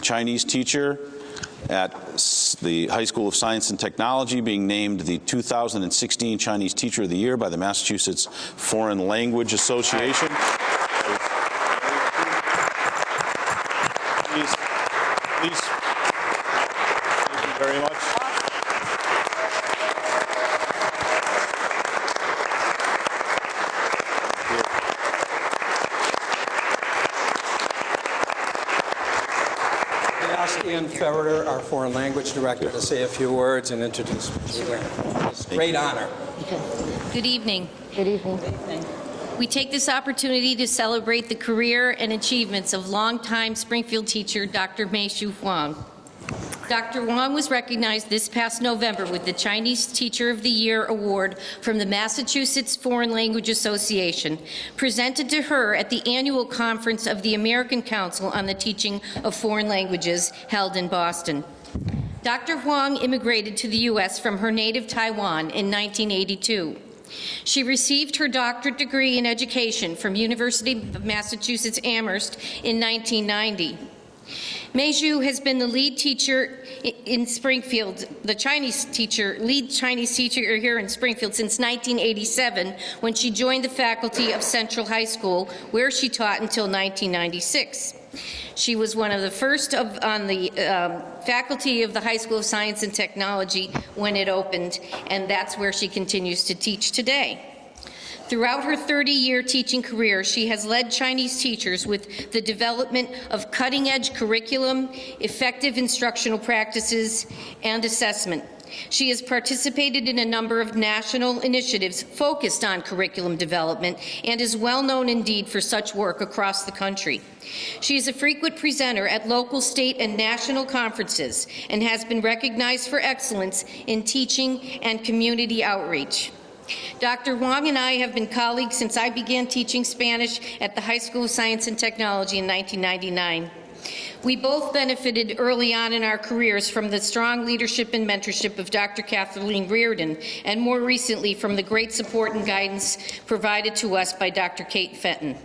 Chinese teacher at s- the High School of Science and Technology, being named the 2016 Chinese Teacher of the Year by the Massachusetts Foreign Language Association. Please, please, thank you very much. I ask Ian Ferreter, our foreign language director, to say a few words and introduce. It's a Great honor. Good evening. Good evening. We take this opportunity to celebrate the career and achievements of longtime Springfield teacher Dr. Meishu Huang. Dr. Huang was recognized this past November with the Chinese Teacher of the Year Award from the Massachusetts Foreign Language Association, presented to her at the annual conference of the American Council on the Teaching of Foreign Languages held in Boston. Dr. Huang immigrated to the U.S. from her native Taiwan in 1982. She received her doctorate degree in education from University of Massachusetts Amherst in 1990. Meiju has been the lead teacher i- in Springfield, the Chinese teacher, lead Chinese teacher here in Springfield since 1987, when she joined the faculty of Central High School, where she taught until 1996. She was one of the first of, on the um, faculty of the High School of Science and Technology when it opened, and that's where she continues to teach today. Throughout her 30-year teaching career, she has led Chinese teachers with the development of cutting-edge curriculum, effective instructional practices, and assessment. She has participated in a number of national initiatives focused on curriculum development and is well-known indeed for such work across the country. She is a frequent presenter at local, state, and national conferences and has been recognized for excellence in teaching and community outreach. Dr. Huang and I have been colleagues since I began teaching Spanish at the High School of Science and Technology in 1999. We both benefited early on in our careers from the strong leadership and mentorship of Dr. Kathleen Reardon, and more recently from the great support and guidance provided to us by Dr. Kate Fenton.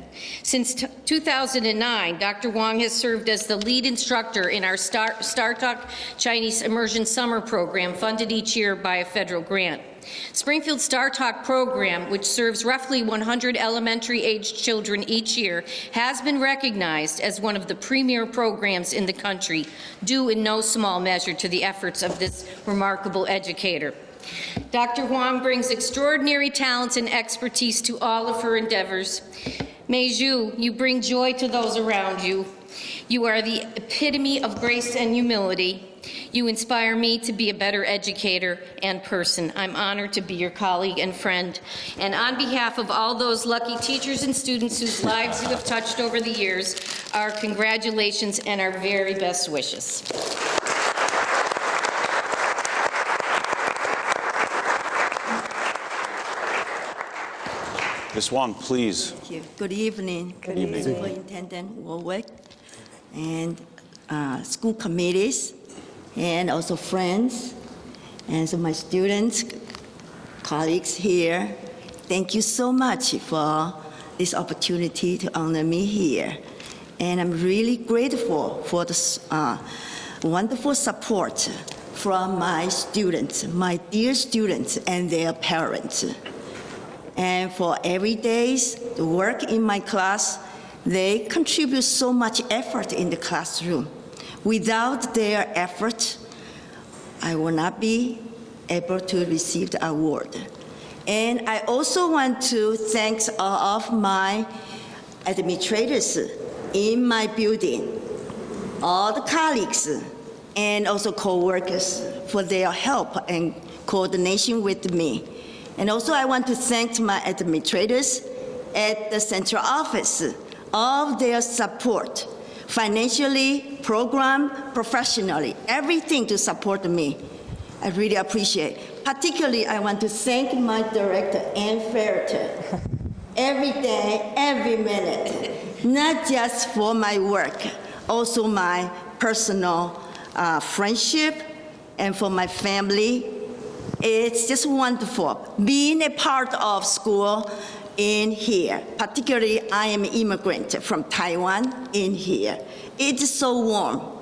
Since t- 2009, Dr. Wong has served as the lead instructor in our Star Star Talk Chinese Immersion Summer Program, funded each year by a federal grant. Springfield Star Talk program, which serves roughly 100 elementary-aged children each year, has been recognized as one of the premier programs in the country, due in no small measure to the efforts of this remarkable educator. Dr. Huang brings extraordinary talents and expertise to all of her endeavors. Meiju, you bring joy to those around you. You are the epitome of grace and humility. You inspire me to be a better educator and person. I'm honored to be your colleague and friend. And on behalf of all those lucky teachers and students whose lives you have touched over the years, our congratulations and our very best wishes. Ms. Wong, please. Thank you. Good evening. Good evening. Superintendent Warwick and uh, school committees and also friends and so my students, colleagues here. Thank you so much for this opportunity to honor me here. And I'm really grateful for the uh, wonderful support from my students, my dear students and their parents and for every day's work in my class, they contribute so much effort in the classroom. Without their effort, I will not be able to receive the award. And I also want to thank all of my administrators in my building, all the colleagues, and also co-workers for their help and coordination with me. And also, I want to thank my administrators at the central office, all their support, financially, program, professionally, everything to support me. I really appreciate. Particularly, I want to thank my director, Ann Ferreter, every day, every minute, not just for my work, also my personal uh, friendship and for my family. It's just wonderful. Being a part of school in here. Particularly, I am immigrant from Taiwan in here. It's so warm.